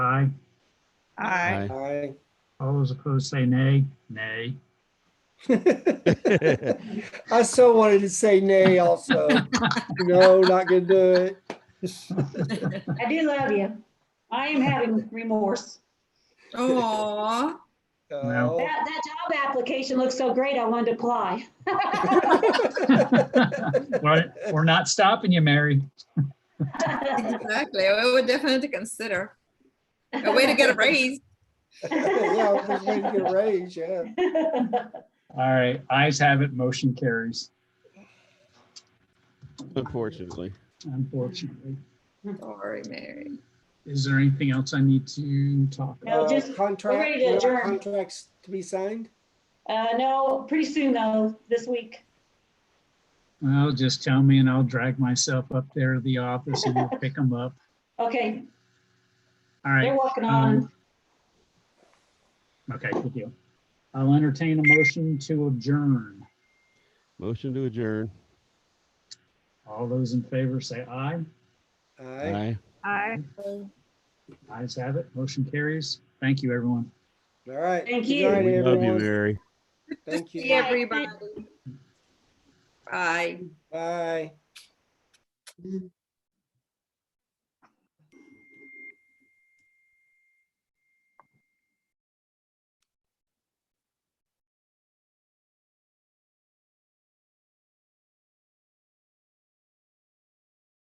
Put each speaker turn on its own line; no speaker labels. Aye.
Aye.
All those opposed say nay. Nay.
I so wanted to say nay also. No, not gonna do it.
I do love you. I am having remorse.
Aw,
No.
Oh.
That, that job application looks so great, I wanted to apply.
We're we're not stopping you, Mary.
exactly. We would definitely consider a way to get a raise.
Yeah, I was just waiting to get raised, yeah.
All right, eyes have it, motion carries,
Unfortunately.
unfortunately.
Sorry, Mary.
Is there anything else I need to talk about?
No,
Uh,
just- we're
Contract,
ready to
no
adjourn.
contracts to be signed?
Uh, no, pretty soon though, this week.
Well, just tell me and I'll drag myself up there to the office and we'll pick them up.
Okay,
All
they're
right,
working
um,
on,
okay, good deal. I'll entertain a motion to adjourn.
Motion to adjourn.
All those in favor say aye.
Aye.
Aye.
Ayes have it, motion carries. Thank you, everyone.
All right.
Thank
Good
you.
night,
We love you,
everyone.
Mary.
Good to
Thank
see
you.
everybody. Bye.
Bye.